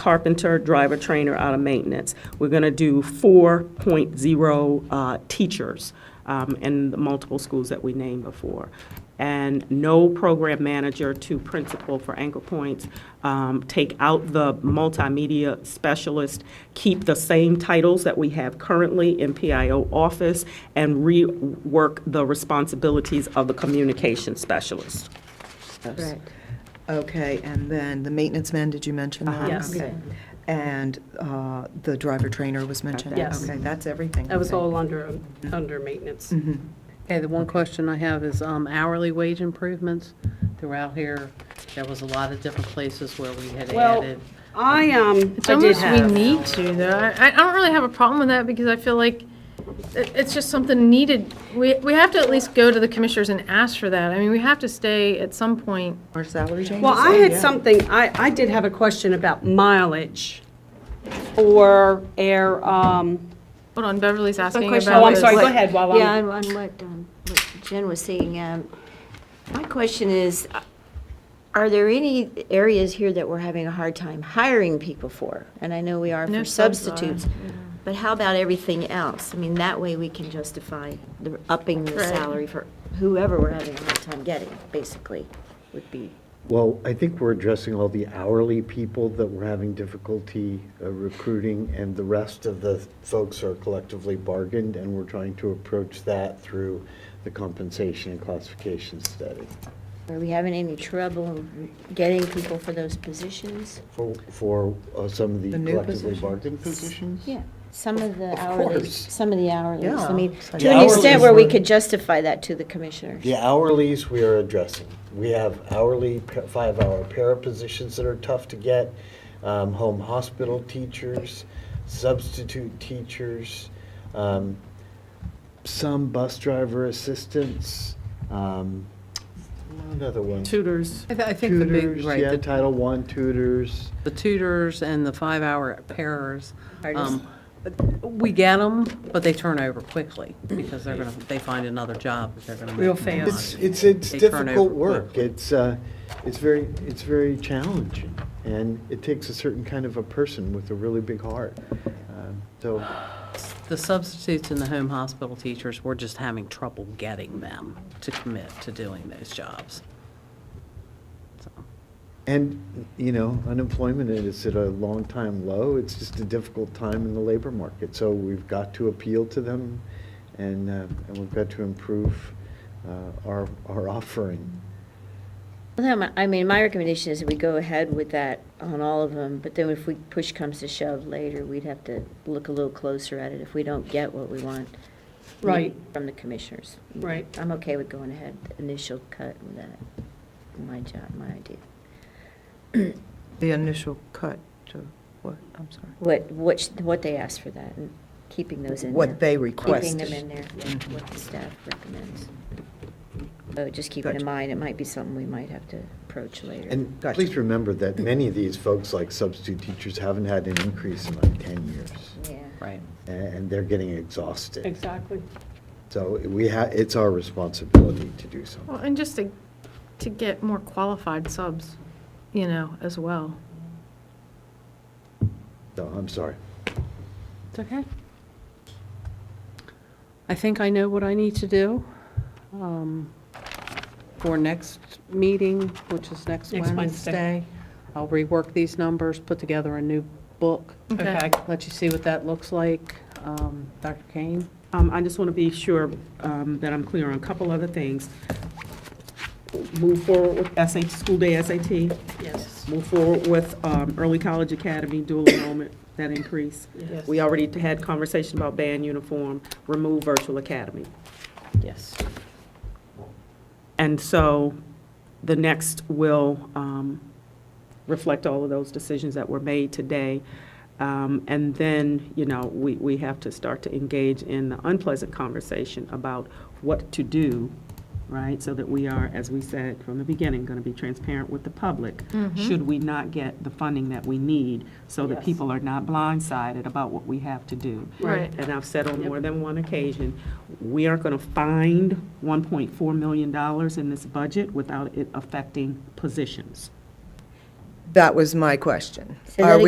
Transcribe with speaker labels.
Speaker 1: carpenter, driver, trainer out of maintenance. We're going to do 4.0 uh, teachers um, in the multiple schools that we named before. And no program manager to principal for Anchor Points. Um, Take out the multimedia specialist, keep the same titles that we have currently in PIO office, and rework the responsibilities of the communication specialist.
Speaker 2: Correct.
Speaker 3: Okay, and then the maintenance man, did you mention
Speaker 2: Uh-huh.
Speaker 3: that?
Speaker 1: Yes.
Speaker 3: Okay. And uh, the driver trainer was mentioned?
Speaker 2: Yes.
Speaker 3: Okay, that's everything.
Speaker 2: That was
Speaker 3: Okay.
Speaker 2: all under, under maintenance.
Speaker 4: Okay, the one question I have is um, hourly wage improvements throughout here. There was a lot of different places where we had
Speaker 2: Well,
Speaker 4: added.
Speaker 2: I, um,
Speaker 5: It's
Speaker 2: I did
Speaker 5: almost we
Speaker 2: have,
Speaker 5: need to though. I, I don't really have a problem with that because I feel like it, it's just something needed. We, we have to at least go to the commissioners and ask for that. I mean, we have to stay at some point.
Speaker 3: Our salary changes?
Speaker 2: well, I had something, I, I did have a question about mileage or air, um,
Speaker 5: Hold on, Beverly's asking
Speaker 2: question
Speaker 5: about.
Speaker 2: I was-
Speaker 5: this.
Speaker 2: sorry, go ahead while I'm-
Speaker 6: Yeah, on on what, um, what Jen was saying, um, my question is, uh, are there any areas here that we're having a hard time hiring people for? And I know we are
Speaker 5: No,
Speaker 6: for
Speaker 5: some are,
Speaker 6: substitutes, but how about everything else? I mean, that way we can justify the upping the
Speaker 5: Right.
Speaker 6: salary for whoever we're having a hard time getting, basically, would be.
Speaker 7: Well, I think we're addressing all the hourly people that we're having difficulty uh, recruiting, and the rest of the folks are collectively bargained, and we're trying to approach that through the compensation and classification study.
Speaker 6: Are we having any trouble getting people for those positions?
Speaker 7: For, for uh, some of the
Speaker 3: The new
Speaker 7: collectively
Speaker 3: positions?
Speaker 7: bargained positions?
Speaker 6: Yeah, some of the
Speaker 7: Of
Speaker 6: hourly,
Speaker 7: course.
Speaker 6: some of the hourly.
Speaker 3: Yeah.
Speaker 6: I mean,
Speaker 3: The
Speaker 6: to an extent where we
Speaker 7: hourlies were-
Speaker 6: could justify that to the commissioners.
Speaker 7: The hourlies we are addressing. We have hourly, pa- five-hour para positions that are tough to get, um, home hospital teachers, substitute teachers, um, some bus driver assistants, um, another one.
Speaker 1: Tutors.
Speaker 4: I th- I think the big,
Speaker 7: Tutors, yeah,
Speaker 4: right, the-
Speaker 7: Title I tutors.
Speaker 4: the tutors and the five-hour pairs. um, We get them, but they turn over quickly because they're going to, they find another job if they're going to make.
Speaker 2: Real
Speaker 4: more money.
Speaker 2: fast.
Speaker 7: It's, it's, it's
Speaker 4: They turn
Speaker 7: difficult
Speaker 4: over
Speaker 7: work.
Speaker 4: quickly.
Speaker 7: It's, uh, it's very, it's very challenging. And it takes a certain kind of a person with a really big heart. Um, So,
Speaker 4: The substitutes and the home hospital teachers, we're just having trouble getting them to commit to doing those jobs. So.
Speaker 7: and, you know, unemployment is at a long-time low. It's just a difficult time in the labor market. So we've got to appeal to them and, uh, and we've got to improve uh, our, our offering.
Speaker 6: Well, then, my- I mean, my recommendation is that we go ahead with that on all of them, but then if we, push comes to shove later, we'd have to look a little closer at it if we don't get what we want.
Speaker 2: Right.
Speaker 6: From the commissioners.
Speaker 2: Right.
Speaker 6: I'm okay with going ahead, initial cut with that, my job, my idea.
Speaker 3: The initial cut to what, I'm sorry.
Speaker 6: What, what, sh- what they asked for that, and keeping those in there.
Speaker 3: What they Mm-hmm.
Speaker 6: Keeping them
Speaker 3: requested.
Speaker 6: in there, yeah, what the staff recommends. So just keep it
Speaker 3: Gotcha.
Speaker 6: in mind, it might be something we might have to approach later.
Speaker 7: And
Speaker 3: Gotcha.
Speaker 7: please remember that many of these folks, like substitute teachers, haven't had an increase in like 10 years.
Speaker 6: Yeah.
Speaker 4: Right.
Speaker 7: and they're getting exhausted.
Speaker 2: exactly.
Speaker 7: So we have, it's our responsibility to do
Speaker 5: Well,
Speaker 7: something.
Speaker 5: and just to, to get more qualified subs, you know, as well.
Speaker 7: So I'm sorry.
Speaker 4: It's okay. I think I know what I need to do um, for next meeting, which is next
Speaker 2: Next Wednesday.
Speaker 4: Wednesday. I'll rework these numbers, put together a new book,
Speaker 2: Okay.
Speaker 4: let you see what that looks like. Um, Dr. Kane?
Speaker 1: Um, I just want to be sure um, that I'm clear on a couple other things. Move forward with SAT, school day SAT,
Speaker 2: Yes.
Speaker 1: move forward with um, early college academy dual enrollment, that increase.
Speaker 2: Yes.
Speaker 1: We already had conversation about band uniform, remove virtual academy.
Speaker 4: Yes.
Speaker 1: And so the next will um, reflect all of those decisions that were made today. Um, And then, you know, we, we have to start to engage in the unpleasant conversation about what to do, right? So that we are, as we said from the beginning, going to be transparent with the public. Should we not get the funding that we need so that
Speaker 2: Yes.
Speaker 1: people are not blindsided about what we have to do?
Speaker 5: Right.
Speaker 1: And I've said on more than one occasion, we aren't going to find $1.4 million in this budget without it affecting positions.
Speaker 3: That was my question.
Speaker 6: Say
Speaker 3: Are
Speaker 6: that